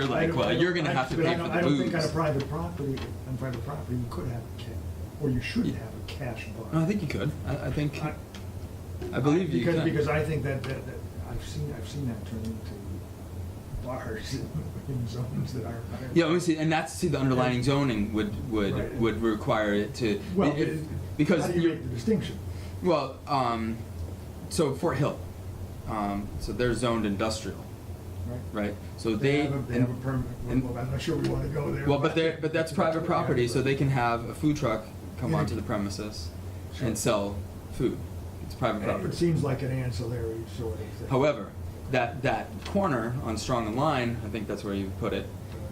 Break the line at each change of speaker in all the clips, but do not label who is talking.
You're like, well, you're gonna have to
But
pay
I
for
don't-
the
I don't think on a
booze.
private property, on private property, you could have, a ca- or you should
Yeah.
have a cash bar.
No, I think you could. I, I think,
I-
I believe you
because,
can.
Because I think that, that, that, I've seen, I've seen that turn into bars in zones that are.
Yeah, obviously, and that's, see, the underlying zoning would,
Right.
would, would require it to,
Well,
it-
it-
because
How do you
you're-
make the distinction?
Well, um, so Fort Hill, um, so they're zoned industrial, right? So they.
have a- They
and-
have a permit,
and-
well, I'm not sure we wanna go there.
Well, but they're, but that's private property, so they can have a food truck come
Yeah.
onto the premises
Sure.
and sell food. It's private
It
property.
seems like an ancillary sort of thing.
However, that, that corner on Strong and Line, I think that's where you put it,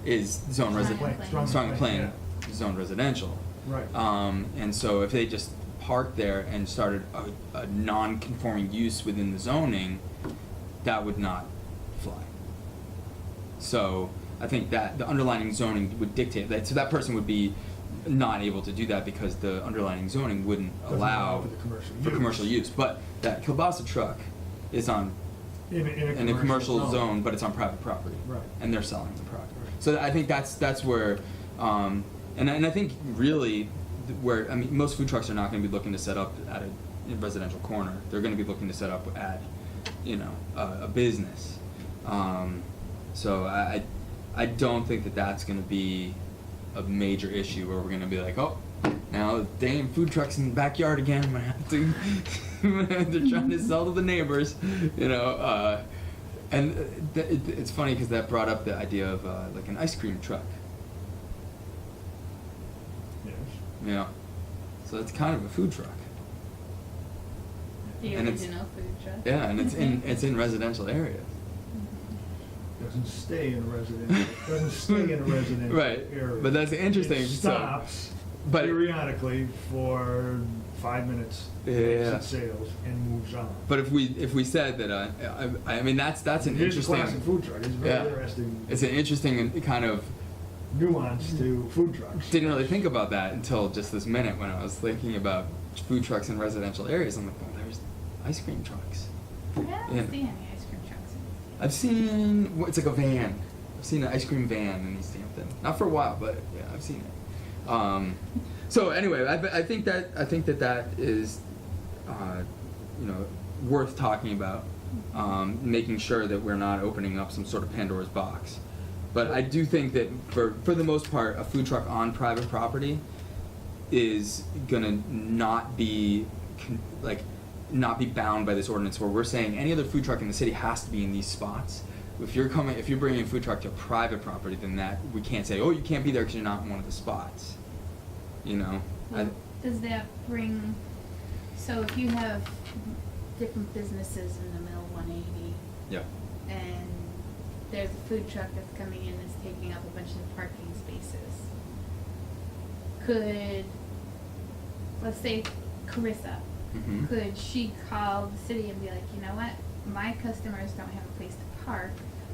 is zone
Strong and
residential.
Plain.
Strong and Plain,
yeah.
zone residential.
Right.
Um, and so if they just parked there and started a, a non-conforming use within the zoning, that would not fly. So I think that the underlying zoning would dictate that, so that person would be not able to do that because the underlying zoning wouldn't
Doesn't allow
allow
for the commercial
for
use.
commercial use. But that kielbasa truck is on,
In a, in a commercial zone.
in a commercial zone, but it's on private property.
Right.
And they're selling the product.
Right.
So I think that's, that's where, um, and, I- and I think really th- where, I mean, most food trucks are not gonna be looking to set up at a residential corner. They're gonna be looking to set up at, you know, a, a business. Um, so I, I I don't think that that's gonna be a major issue where we're gonna be like, oh, now damn food trucks in the backyard again. I'm gonna have to, they're trying to sell to the neighbors, you know. Uh, and uh, th- it, it's funny because that brought up the idea of uh, like an ice cream truck,
Yes.
you know. So it's kind of a food truck.
The
And it's-
original food truck.
Yeah, and it's in it's in residential areas.
Doesn't stay in a residential, doesn't stay in a residential
Right,
area.
but that's interesting,
It
so-
stops
but-
periodically for five minutes,
Yeah.
exits sales, and moves on.
But if we if we said that, uh, I, I mean that's that's an
It is a
interesting.
classic food truck. It's very interesting.
It's an interesting kind of.
Nuance to food trucks.
Didn't really think about that until just this minute when I was thinking about food trucks in residential areas. I'm like, oh, there's ice cream trucks.
I haven't
Yeah.
seen any ice cream trucks in
I've seen well, it's like a van. I've seen an ice cream van in East Hampton. Not for a while, but yeah, I've seen it. Um, so anyway, I, I think that I think that that is, uh, you know, worth talking about. Um, making sure that we're not opening up some sort of Pandora's box. But I do think that for for the most part, a food truck on private property is gonna not be con- like not be bound by this ordinance where we're saying any other food truck in the city has to be in these spots. If you're coming, if you're bringing a food truck to private property, then that we can't say, oh, you can't be there because you're not in one of the spots. You know, I,
Well, Does that bring, so if you have different businesses in the mill one eighty
yeah,
and there's a food truck that's coming in that's taking up a bunch of parking spaces. Could, let's say Carissa,
Mhm.
could she call the city and be like, you know what? My customers don't have a place to park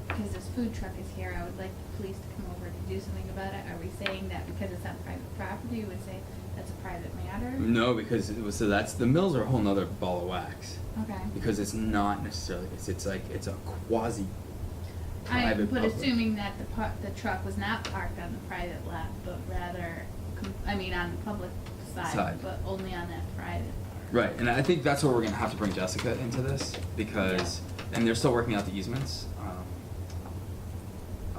because this food truck is here. I would like the police to come over to do something about it. Are we saying that because it's on private property, we would say that's a private matter?
no, because it was, so that's the mills are a whole nother ball of wax
Okay.
because it's not necessarily it's it's like it's a quasi.
I,
private
but
public.
assuming that the par- the truck was not parked on the private lot, but rather, com- I mean, on the public side,
Side.
but only on that private part.
Right, and I think that's where we're gonna have to bring Jessica into this because, and they're still working out the easements. Um,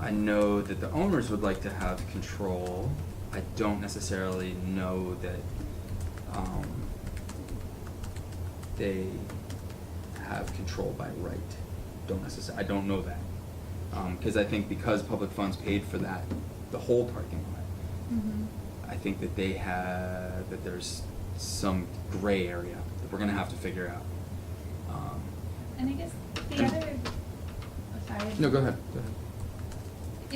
I know that the owners would like to have control. I don't necessarily know that um, they have control by right. Don't necessarily. I don't know that because I think because public funds paid for that, the whole parking lot.
Mhm.
I think that they have that there's some gray area that we're gonna have to figure out. Um,
And I guess the other, oh, sorry.
no, go ahead. Go ahead.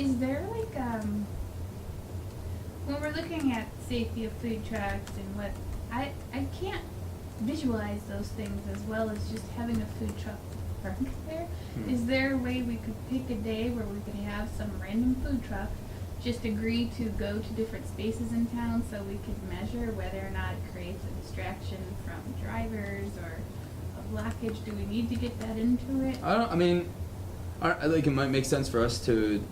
Is there like um when we're looking at safety of food trucks and what I I can't visualize those things as well as just having a food truck park there. Is
Hmm.
there a way we could pick a day where we could have some random food truck just agree to go to different spaces in town so we could measure whether or not it creates a distraction from drivers or a blockage? Do we need to get that into it?
I don't. I mean, I, I like it might make sense for us to